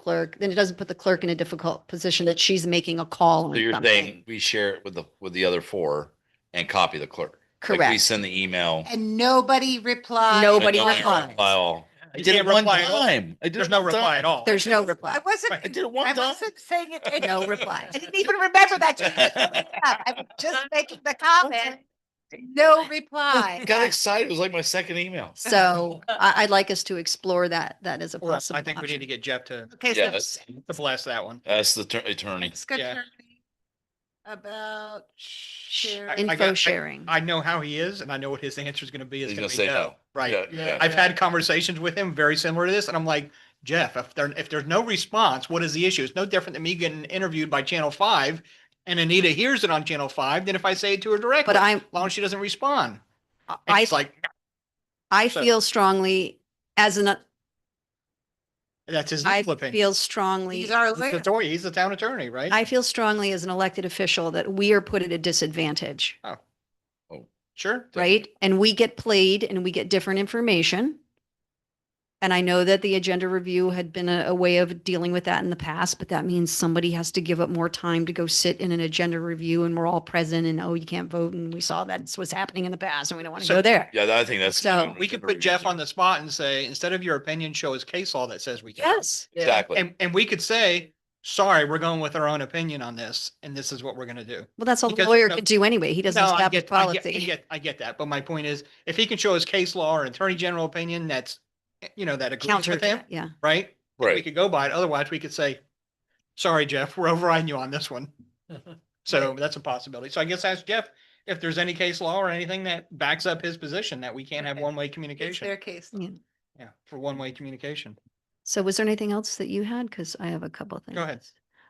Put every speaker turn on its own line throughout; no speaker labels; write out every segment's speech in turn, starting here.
clerk, then it doesn't put the clerk in a difficult position that she's making a call.
So
on
you're
something.
saying we share it with the, with the other four and copy the clerk? Like, We
Correct.
send the email.
And nobody replied.
but
Nobody
nobody
replies.
reply. I
You
did it
can't
one
reply at all.
time. I did
There's
it
no
one
reply
time.
at all.
There's no
I
reply.
wasn't,
I did it
I
one time.
wasn't saying it. I
No reply.
didn't even remember that. till just now. I was just making the comment. No reply.
Got excited. It was like my second email.
So I, I'd like us to explore that, that as a
Well,
possible
I think we need
option.
to get Jeff to,
Okay, so
Yes.
to bless that one.
That's the tur- attorney.
ask attorney
Yeah.
about
I- I
sharing.
got-
Info
I-
sharing.
I know how he is and I know what his answer is going to be. It's
He's
going
gonna
to
say
be
no.
no.
Yeah,
Right.
yeah.
I've had conversations with him very similar to this and I'm like, Jeff, if there, if there's no response, what is the issue? It's no different than me getting interviewed by Channel Five and Anita hears it on Channel Five than if I say it to her directly.
But I'm-
As long as she doesn't respond. And
I,
she's like,
I
so-
feel strongly as an,
that's his
I
flipping.
feel strongly
These are.
He's the attorney- he's the town attorney, right?
I feel strongly as an elected official that we are put at a disadvantage,
Sure.
right? And we get played and we get different information. And I know that the agenda review had been a, a way of dealing with that in the past, but that means somebody has to give up more time to go sit in an agenda review and we're all present and, oh, you can't vote. And we saw that's what's happening in the past and we don't want to
So-
go there.
Yeah, I think that's.
So-
We could put Jeff on the spot and say, instead of your opinion, show us case law that says we can.
Yes.
Exactly.
And, and we could say, sorry, we're going with our own opinion on this, and this is what we're gonna do.
Well, that's all the
Because-
lawyer
no-
could do anyway. He doesn't
No, I
establish
get, I get, I
policy.
get, I get that, but my point is, if he can show his case law or attorney general opinion, that's, you know, that agrees
Counter,
with
to
him,
that, yeah.
right? We
Right.
could go by it, otherwise we could say, sorry, Jeff, we're overriding you on this one. So that's a possibility. So I guess ask Jeff if there's any case law or anything that backs up his position that we can't have
Okay.
one-way
It's
communication.
their case.
Yeah.
Yeah, for one-way communication.
So was there anything else that you had? Because I have a couple of things.
Go ahead.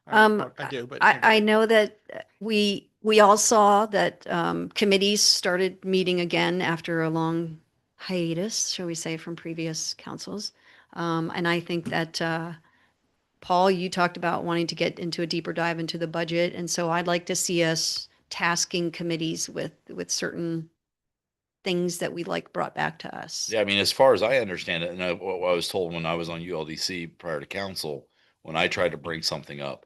I-
Um,
I do, but.
I, I know that uh, we, we all saw that um, committees started meeting again after a long hiatus, shall we say, from previous councils. Um, And I think that, uh, Paul, you talked about wanting to get into a deeper dive into the budget. And so I'd like to see us tasking committees with, with certain things that we like brought back to us.
Yeah, I mean, as far as I understand it, and I, what I was told when I was on ULDC prior to council, when I tried to bring something up,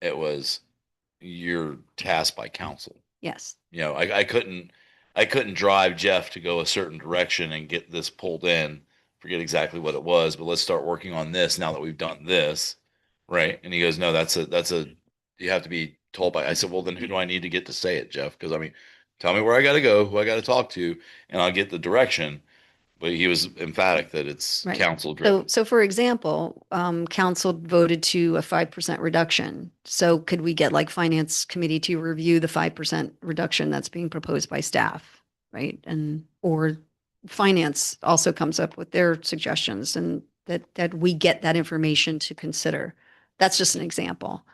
it was you're tasked by council.
Yes.
You know, I, I couldn't, I couldn't drive Jeff to go a certain direction and get this pulled in. Forget exactly what it was, but let's start working on this now that we've done this. Right. And he goes, no, that's a, that's a, you have to be told by, I said, well, then who do I need to get to say it, Jeff? Cause I mean, tell me where I gotta go, who I gotta talk to, and I'll get the direction. But he was emphatic that it's
Right.
council
So,
driven.
so for example, um, council voted to a five percent reduction. So could we get like finance committee to review the five percent reduction that's being proposed by staff? Right? And, or finance also comes up with their suggestions and that, that we get that information to consider. That's just an example.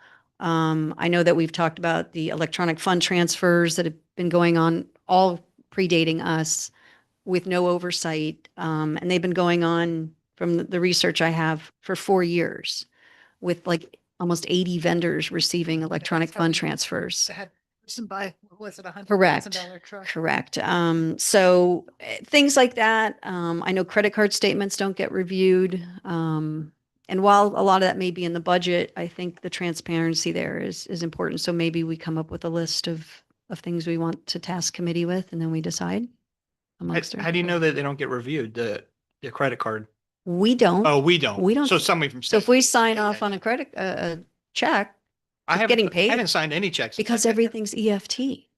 Um, I know that we've talked about the electronic fund transfers that have been going on, all predating us with no oversight. Um, and they've been going on from the- the research I have for four years with like almost 80 vendors receiving electronic
so-
fund transfers.
Had person buy, what was it a hundred
Correct.
thousand dollar truck?
Correct. Um, so eh, things like that. Um, I know credit card statements don't get reviewed. Um, and while a lot of that may be in the budget, I think the transparency there is, is important. So maybe we come up with a list of, of things we want to task committee with and then we decide
How
amongst.
how do you know that they don't get reviewed, the, the credit card?
We don't.
Oh, we don't.
we don't-
So somebody from.
So if
state-
we sign off
okay.
on a credit, uh, a check,
I
it's
haven't-
getting paid.
I haven't signed any checks.
because everything's EFT.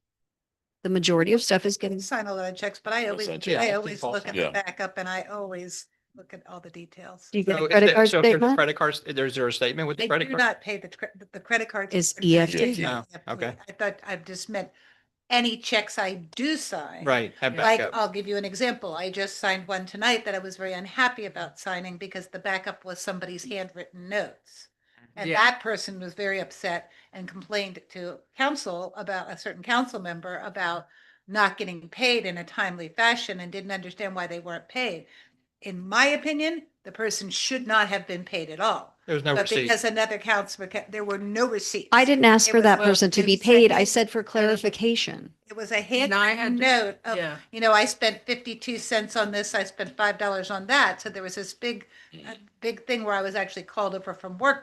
The majority of stuff is
I
getting,
Sign a lot of checks, but I
Yeah,
always,
sign checks.
Yeah, I
I
think
always
Paul
look
said
at
that.
the
Yeah.
backup and I always look at all the details.
do you get
So
a
if
credit
they-
card
so if there's
statement?
Credit cards, there's a statement with the
They
credit
do
card.
not pay the, cre- the- the credit card.
Is
EFT.
Oh, okay.
I thought, I just meant any checks I do sign.
Right, have
Like,
backup.
I'll give you an example. I just signed one tonight that I was very unhappy about signing because the backup was somebody's handwritten notes. And
Yeah.
that person was very upset and complained to council about a certain council member about not getting paid in a timely fashion and didn't understand why they weren't paid. In my opinion, the person should not have been paid at all.
There's no
But
receipt.
because another councilman, ca- there were no receipts.
I didn't ask
It
for
was
that
both
person to be paid.
consecutive-
I said for clarification.
It was a
And I had
handwritten
to-
note of,
yeah.
you know, I spent fifty-two cents on this, I spent five dollars on that. So there was this big, uh, big thing where I was actually called over from work